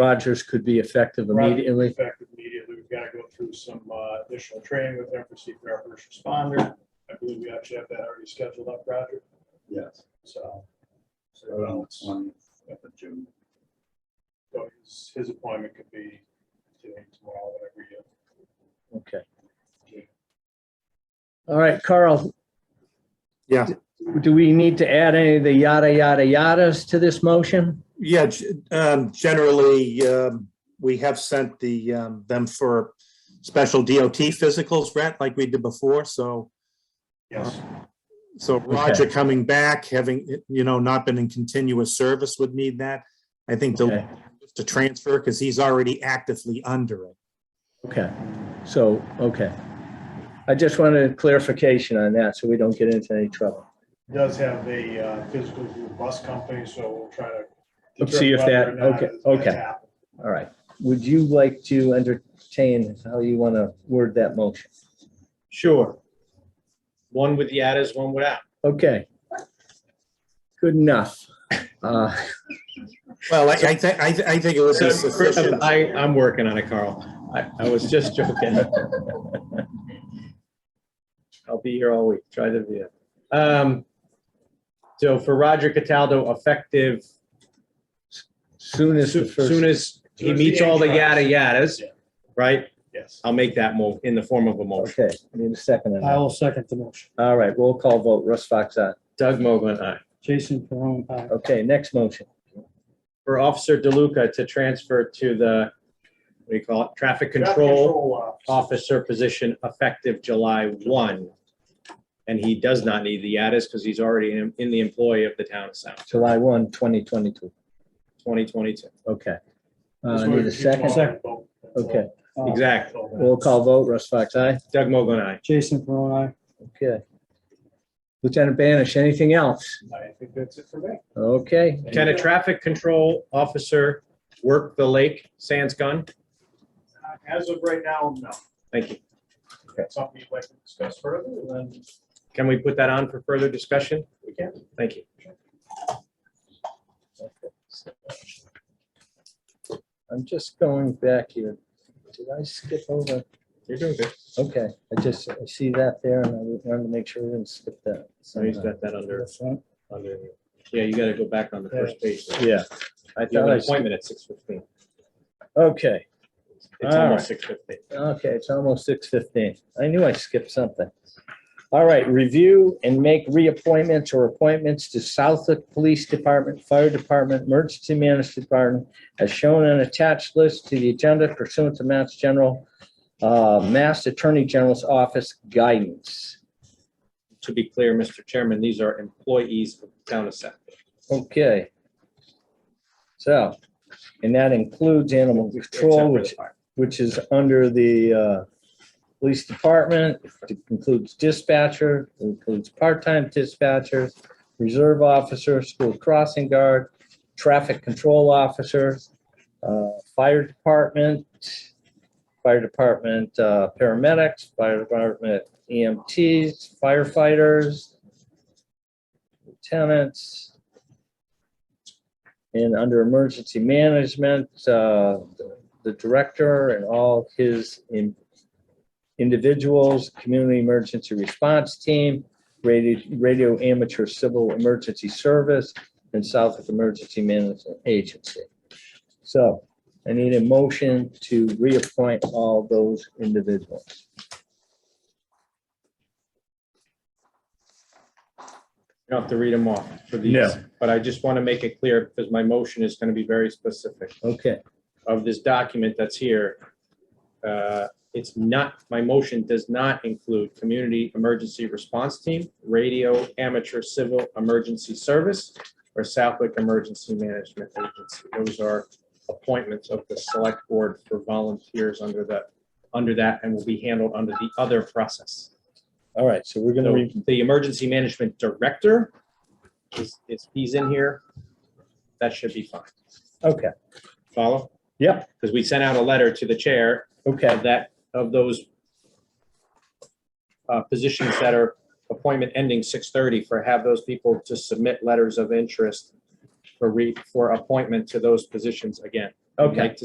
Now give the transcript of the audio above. Rogers could be effective Right. immediately. effective immediately. We've got to go through some uh, additional training with them for CPR first responder. I believe we actually have that already scheduled up, Roger, Yes. so. So on the 20th of June. so his- His appointment could be today, tomorrow, whatever you. Okay. All right, Carl. Yeah. Do we need to add any of the yada, yada, yadas to this motion? Yeah, g- um, generally, um, we have sent the, um, them for special DOT physicals, Brett, like we did before, so, Yes, so Roger coming back, having, you know, not been in continuous service would need that. I think Okay. to, to transfer, because he's already actively under it. Okay, so, okay. I just wanted clarification on that so we don't get into any trouble. He does have a uh, physical through the bus company, so we'll try to. Let's see if that- determine whether or okay, not that's okay. happened. All right. Would you like to entertain how you want to word that motion? Sure. One with yadas, one without. Okay. Good enough. Uh, Well, I, I think, I, thi- I think it would be sufficient. I, I'm working on it, Carl. I, I was just joking. I'll be here all week. Try to be. it. Um, so for Roger Cataldo, effective Soon as the soo- first, soon as he Soon as meets the all the yada HR. yadas, Yeah. right? Uh, Yes. I'll make that move in the form of a motion. okay, need a second. on that. I will second the motion. All right, roll call vote. Russ Fox, aye. Doug Mogul, aye. Jason uh, Perron, aye. Okay, next motion. For Officer DeLuca to transfer to the, what do you call it, Traffic traffic control officer. officer position effective July 1. And he does not need the addis because he's already in in the employ of the town of South, July 1, 2022. 2022. Okay. This Uh, way Need a we keep second? all Second. involved. That's all. Okay, Uh, Exactly. That's all. roll call vote, Russ Fox, aye? Doug Mogul and I. Jason Perron, aye. Okay. Lieutenant Banish, anything else? I think that's it for me. Okay, Can a traffic control officer work the lake sans gun? Uh, As of right now, no. Thank you. Something you'd like to discuss further, then Can we put that on for further discussion? we can. Thank you. I'm just going back here. Did I skip over? You're doing good. Okay, I just I see that there and I wanted to make sure we didn't skip that. So he's got that under, That's right. under, yeah, you got to go back on the first page. Yeah. I You thought have an I, s- appointment at 6:15. okay, It's All right. almost 6:15. okay, it's almost 6:15. I knew I skipped something. All right, review and make reappointments or appointments to Southwick Police Department, Fire Department, Emergency Management Department, as shown on attached list to the agenda pursuant to Mass General, uh, Mass Attorney General's Office guidance. To be clear, Mr. Chairman, these are employees of the town of South. Okay. So, and that includes animal Except control, for the which, fire. which is under the uh, police department, It includes dispatcher, it includes part-time dispatchers, reserve officer, school crossing guard, traffic control officer, uh, fire department, fire department uh, paramedics, fire department EMTs, firefighters, lieutenants, and under emergency management, uh, the- the director and all his in- individuals, community emergency response team, radio, radio amateur civil emergency service, and Southwick Emergency Management Agency. So I need a motion to reappoint all those individuals. You don't have to read them off for these, No. but I just want to make it clear because my motion is going to be very specific. Okay, Of this document that's here, uh, it's not, my motion does not include Community Emergency Response Team, Radio Amateur Civil Emergency Service, or Southwick Emergency Management Agency. Those are appointments of the Select Board for volunteers under that, under that, and will be handled under the other process. all right, so we're gonna, So re- the emergency management director is, is, he's in here. That should be fine. okay, Follow? Yep. Because we sent out a letter to the chair okay, of that, of those uh, positions that are appointment ending six thirty for have those people to submit letters of interest for re, for appointment to those positions again. Okay.